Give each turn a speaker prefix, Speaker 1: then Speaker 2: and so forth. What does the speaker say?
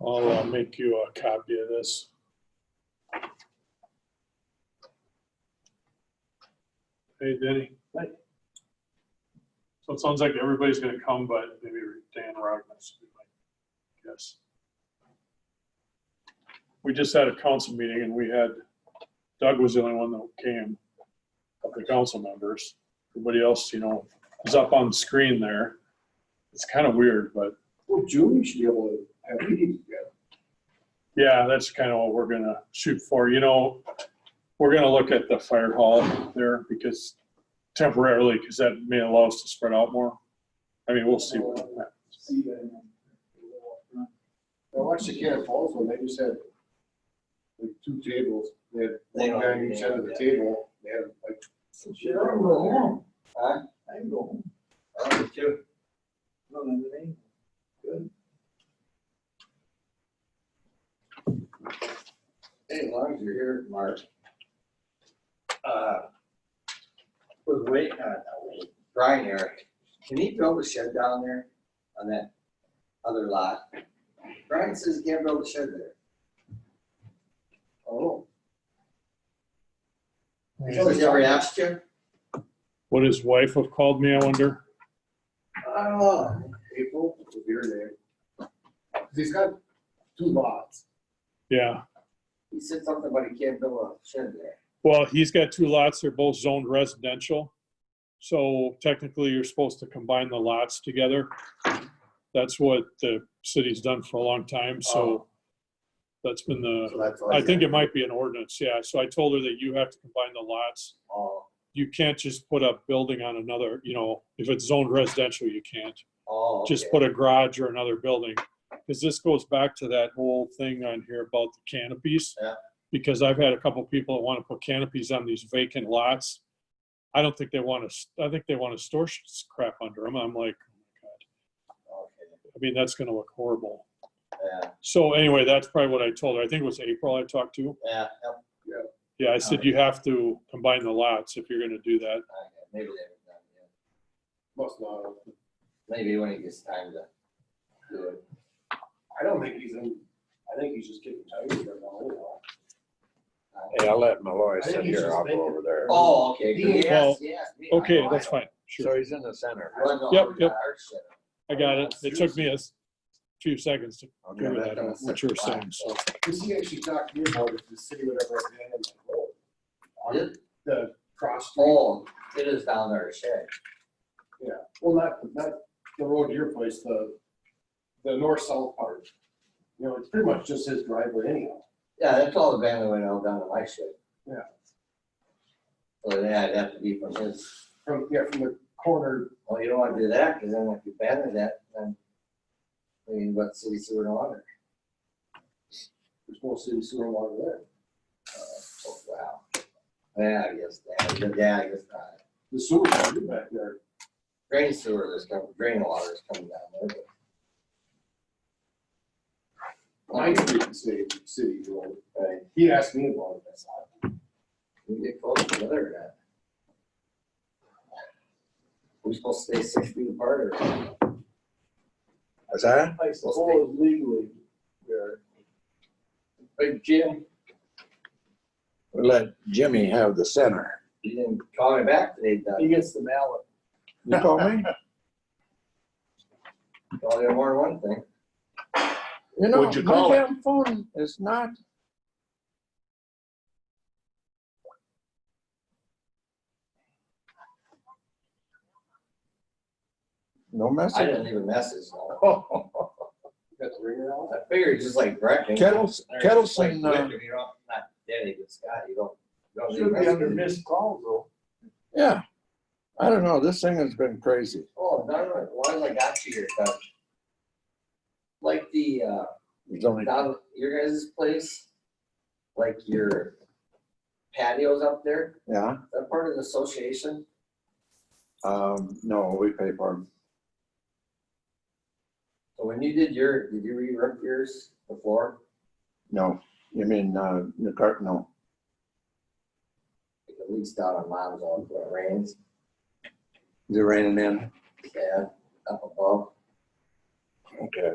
Speaker 1: I'll uh, make you a copy of this. Hey, Denny.
Speaker 2: Hey.
Speaker 1: So it sounds like everybody's gonna come, but maybe Dan Rognes, yes. We just had a council meeting and we had, Doug was the only one that came of the council members. Everybody else, you know, is up on the screen there. It's kind of weird, but
Speaker 2: Well, June, should be able to have meetings together.
Speaker 1: Yeah, that's kind of what we're gonna shoot for. You know, we're gonna look at the fire hall there because temporarily, because that may allow us to spread out more. I mean, we'll see. what happens.
Speaker 2: See that. I watched the Cannon Falls one, they just had like two tables, they had
Speaker 3: They
Speaker 2: one
Speaker 3: don't-
Speaker 2: guy on each end of the
Speaker 3: yeah.
Speaker 2: table, they had like.
Speaker 3: Shit, I can go home.
Speaker 2: Huh?
Speaker 3: I can go home.
Speaker 2: I don't know, two.
Speaker 3: No, no, no, no.
Speaker 2: Hey, as long as you're here, Mark,
Speaker 3: Uh, Was waiting, uh, not waiting.
Speaker 2: Brian here,
Speaker 3: Can he build a shed down there on that other lot? Brian says he can't build a shed there.
Speaker 2: oh.
Speaker 3: So he's already asked you?
Speaker 1: What his wife have called me, I wonder.
Speaker 3: Oh,
Speaker 2: April, if you're there. Cause he's got two lots,
Speaker 1: Yeah,
Speaker 3: he said something about he can't build a shed there.
Speaker 1: well, he's got two lots. They're both zoned residential. So technically, you're supposed to combine the lots together. That's what the city's done for a long time, so that's been the
Speaker 2: so that's. all
Speaker 1: I
Speaker 2: he
Speaker 1: think
Speaker 2: got.
Speaker 1: it might be an ordinance, yeah. So I told her that you have to combine the lots.
Speaker 3: Oh,
Speaker 1: You can't just put a building on another, you know, if it's zoned residential, you can't.
Speaker 3: oh.
Speaker 1: Just
Speaker 3: okay.
Speaker 1: put a garage or another building. Because this goes back to that whole thing on here about the canopies.
Speaker 3: Yeah.
Speaker 1: Because I've had a couple people that want to put canopies on these vacant lots. I don't think they want to, I think they want to store s- crap under them. I'm like,
Speaker 3: Okay,
Speaker 1: I mean, that's going to look horrible.
Speaker 3: Yeah,
Speaker 1: So anyway, that's probably what I told her. I think it was April I talked to.
Speaker 3: yeah, yep,
Speaker 1: Yeah, I said you have to combine the lots if you're gonna do that.
Speaker 3: okay, maybe they haven't done it yet.
Speaker 2: Must not, have.
Speaker 3: Maybe when it gets time to do it.
Speaker 2: I don't think he's in, I think he's just getting tired right now, anyhow.
Speaker 4: Hey, I'll let Malloy
Speaker 2: I think
Speaker 4: sit
Speaker 2: he's
Speaker 4: here,
Speaker 2: just
Speaker 4: I'll go
Speaker 2: thinking.
Speaker 4: over there.
Speaker 3: Oh, okay.
Speaker 2: He
Speaker 3: good.
Speaker 1: Well,
Speaker 3: He asked me.
Speaker 1: Okay,
Speaker 3: I-
Speaker 1: that's fine. Sure.
Speaker 4: So he's in the center.
Speaker 3: Well, no,
Speaker 1: Yep,
Speaker 3: we
Speaker 1: yep.
Speaker 3: got our shed.
Speaker 1: I got it. It took me a s- few seconds to
Speaker 4: Okay,
Speaker 1: figure
Speaker 4: that-
Speaker 1: that out, what you were saying, so.
Speaker 2: Because he actually talked to me about if the city would ever abandon that road.
Speaker 3: Is it?
Speaker 2: The cross street,
Speaker 3: Oh, it is down there, shed.
Speaker 2: yeah, well, not, not the road to your place, the, the north-south part. You know, it's pretty much just his driveway anyhow.
Speaker 3: Yeah, that's all the family went out down to my shed.
Speaker 2: Yeah.
Speaker 3: So yeah, it'd have to be from his,
Speaker 2: From, yeah, from the corner,
Speaker 3: well, you don't wanna do that, cause then if you abandon that, then I mean, what city sewer and water?
Speaker 2: there's no city sewer water there.
Speaker 3: Oh, wow. Yeah, I guess, yeah, yeah, I guess not.
Speaker 2: The sewer is back there.
Speaker 3: Drain sewer is coming, drain water is coming down there. but-
Speaker 2: Mine is the city, city road.
Speaker 3: Right.
Speaker 2: He asked me about it, that's all.
Speaker 3: We get close together or not? We're supposed to stay six feet apart or?
Speaker 4: Is that?
Speaker 5: I suppose legally, you're. But Jim,
Speaker 4: We'll Let Jimmy have the center.
Speaker 3: You didn't call me back today, Doug.
Speaker 5: he gets the mallet.
Speaker 4: You call me?
Speaker 3: Well, there were one thing.
Speaker 4: You know,
Speaker 1: What'd you
Speaker 4: my
Speaker 1: call it?
Speaker 4: damn phone is not. No
Speaker 3: I
Speaker 4: message?
Speaker 3: didn't leave a message. no.
Speaker 2: Got the ringer out.
Speaker 3: I figured it's just like Brecken.
Speaker 4: Kettles,
Speaker 3: There's like
Speaker 4: Kettleson, uh,
Speaker 3: Victor, You don't, not Denny, but Scott, you don't. you don't leave
Speaker 5: Should be under
Speaker 3: messages.
Speaker 5: missed calls though.
Speaker 4: yeah. I don't know, this thing has been crazy.
Speaker 3: Oh, darn it. Why did I got you here, Doug? Like the, uh,
Speaker 4: There's only
Speaker 3: down at your guys' place, like your patios up there,
Speaker 4: Yeah,
Speaker 3: is that part of the association?
Speaker 4: um, no, we pay for them.
Speaker 3: So when you did your, did you re-rip yours before?
Speaker 4: No, you mean, uh, the cart, no.
Speaker 3: Like At least down on mine's all when it rains,
Speaker 4: Is it raining in?
Speaker 3: yeah, up above.
Speaker 4: Okay.